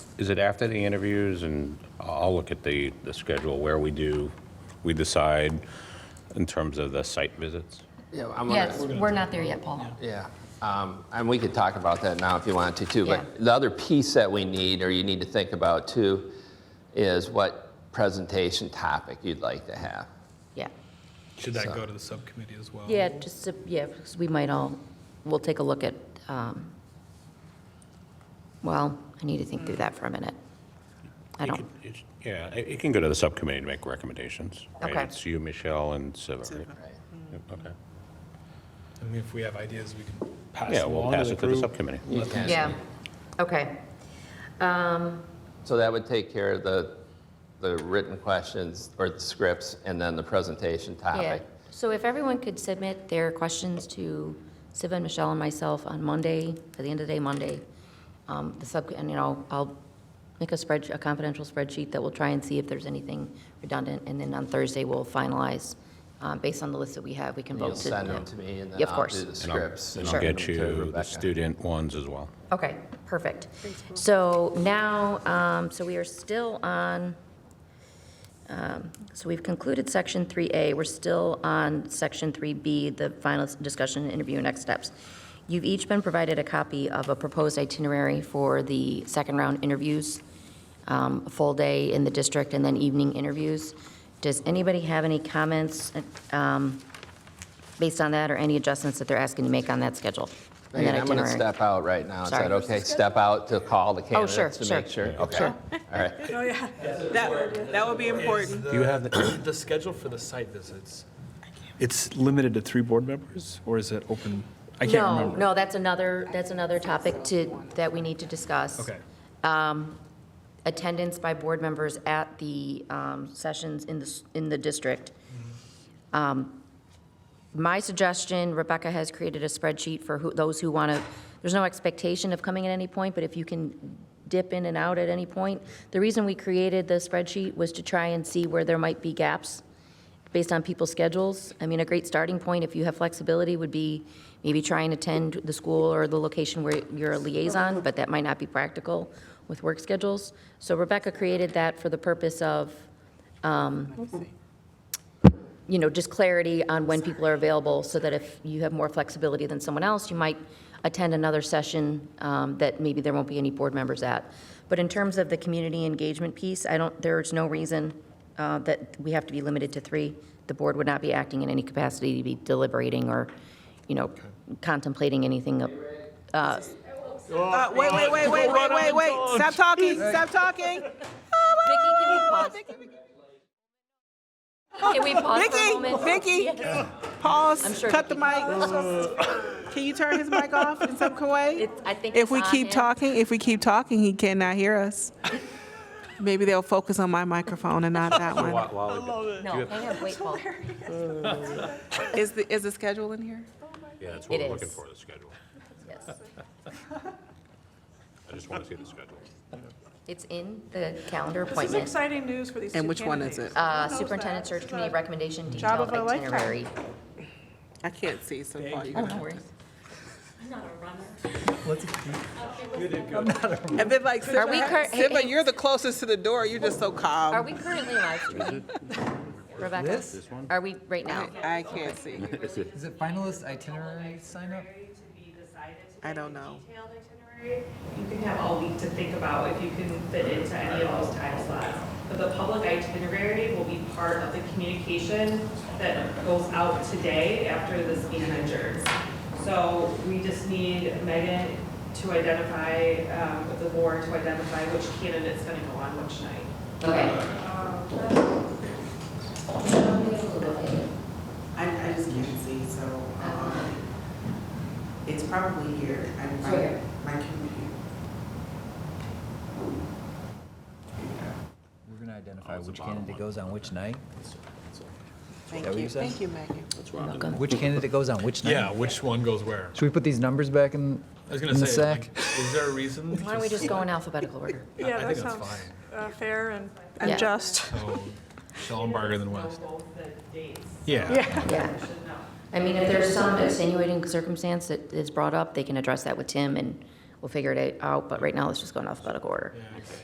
is it after the interviews? And I'll look at the, the schedule where we do, we decide in terms of the site visits. Yeah, I'm gonna- Yes, we're not there yet, Paul. Yeah, um, and we could talk about that now if you want to too. Yeah. But the other piece that we need, or you need to think about too, is what presentation topic you'd like to have. Yeah. Should that go to the subcommittee as well? Yeah, just, to- yeah, because we might all, we'll take a look at, um, well, I need to think through that for a minute. I don't, Yeah, it it can go to the subcommittee to make recommendations. right? Okay. It's you, Michelle, and Siva, right? Yeah, Okay. I mean, if we have ideas, we can pass Yeah, them we'll on to pass the it to the group. subcommittee. You can- yeah, okay. So that would take care of the, the written questions or the scripts and then the presentation Yeah, topic. so if everyone could submit their questions to Siva and Michelle and myself on Monday, at the end of the day, Monday, um, the sub, and, you know, I'll make a spreadsheet, a confidential spreadsheet that we'll try and see if there's anything redundant, and then on Thursday, we'll finalize, um, based on the list that we have, we can And You'll vote to. send them to me and then Yeah, of I'll do course. the And I'll- scripts. And I'll Sure. get Send them to you the Rebecca. student ones as well. Okay, perfect. So now, um, so we are still on, um, so we've concluded Section 3A. We're still on Section 3B, the final discussion, interview, and next steps. You've each been provided a copy of a proposed itinerary for the second round interviews, um, a full day in the district, and then evening interviews. Does anybody have any comments um, based on that, or any adjustments that they're asking to make on that schedule? and that Megan, I'm going to itinerary? step out right now. Is Sorry. that okay? Step out to call the Oh, sure, candidates to sure. make sure? Okay, all right. Oh, yeah. That, that would be important. Do you have the? The schedule for the site visits, it's limited to three board members, or is it open? I can't No, remember. no, that's another, that's another topic to, that we need to discuss. Okay, Attendance by board members at the um, sessions in the, s- in the district. Mm-hmm. Um, My suggestion, Rebecca has created a spreadsheet for who, those who want to, there's no expectation of coming at any point, but if you can dip in and out at any point. The reason we created the spreadsheet was to try and see where there might be gaps based on people's schedules. I mean, a great starting point, if you have flexibility, would be maybe try and attend the school or the location where you're a liaison, but that might not be practical with work schedules. So Rebecca created that for the purpose of, you know, just clarity on when people are available, so that if you have more flexibility than someone else, you might attend another session um, that maybe there won't be any board members at. But in terms of the community engagement piece, I don't, there's no reason uh, that we have to be limited to three. The board would not be acting in any capacity to be deliberating or, you know, contemplating anything. of- uh, Uh, wait, wait, wait, wait, wait, wait, wait. Stop talking, stop talking. Vicky, can we pause? Can we pause for a moment? Vicky, Vicky. Yes. I'm Pause, sure cut the Vicky- mic. Can you turn his mic off in some way? It's- I think If it's we on keep him. talking, if we keep talking, he cannot hear us. Maybe they'll focus on my microphone and not that one. No, hang on, wait, Paul. Is the, is the schedule in here? Yeah, that's what It we're looking is. for, the schedule. Yes. I just want to see the schedule. It's in the calendar This is appointment. exciting news for these two And which one is candidates. it? Uh, Superintendent Search Committee Recommendation Job Detailed of a lifetime. Itinerary. I can't see, so Paul, you Oh, gotta no worries. And then like, Are we cur- Siva, hey, Siva, hey. you're the closest to the door, you're just so Are Um, calm. we currently live streaming? Rebecca? Are we right now? I I can't see. Is it finalist itinerary sign up? itinerary to be decided to I be don't a know. Detailed itinerary, you can have all week to think about if you can fit into any of those time slots. But the public itinerary will be part of the communication that goes out today after this meeting adjourns. So we just need Megan to identify, um, with the board to identify which candidate's gonna go on which night. Okay. I, I just can't see, so, um, it's probably here, I, my, my computer. We're going to Oh, identify which candidate goes on which night? Thank what you, you said? thank you, Megan. Which candidate goes on which night? yeah, which one goes where? Should we put these numbers back in I was in gonna the say, sack? like, is there a reason? Why don't we just go in alphabetical order? I Yeah, that think that's sounds fine. uh, fair and Yeah. and just. So, Schellenberger than Know West. both the dates. Yeah, Yeah. You should know. I mean, if there's some extenuating circumstance that is brought up, they can address that with Tim, and we'll figure it out, but right now, let's just go in alphabetical order.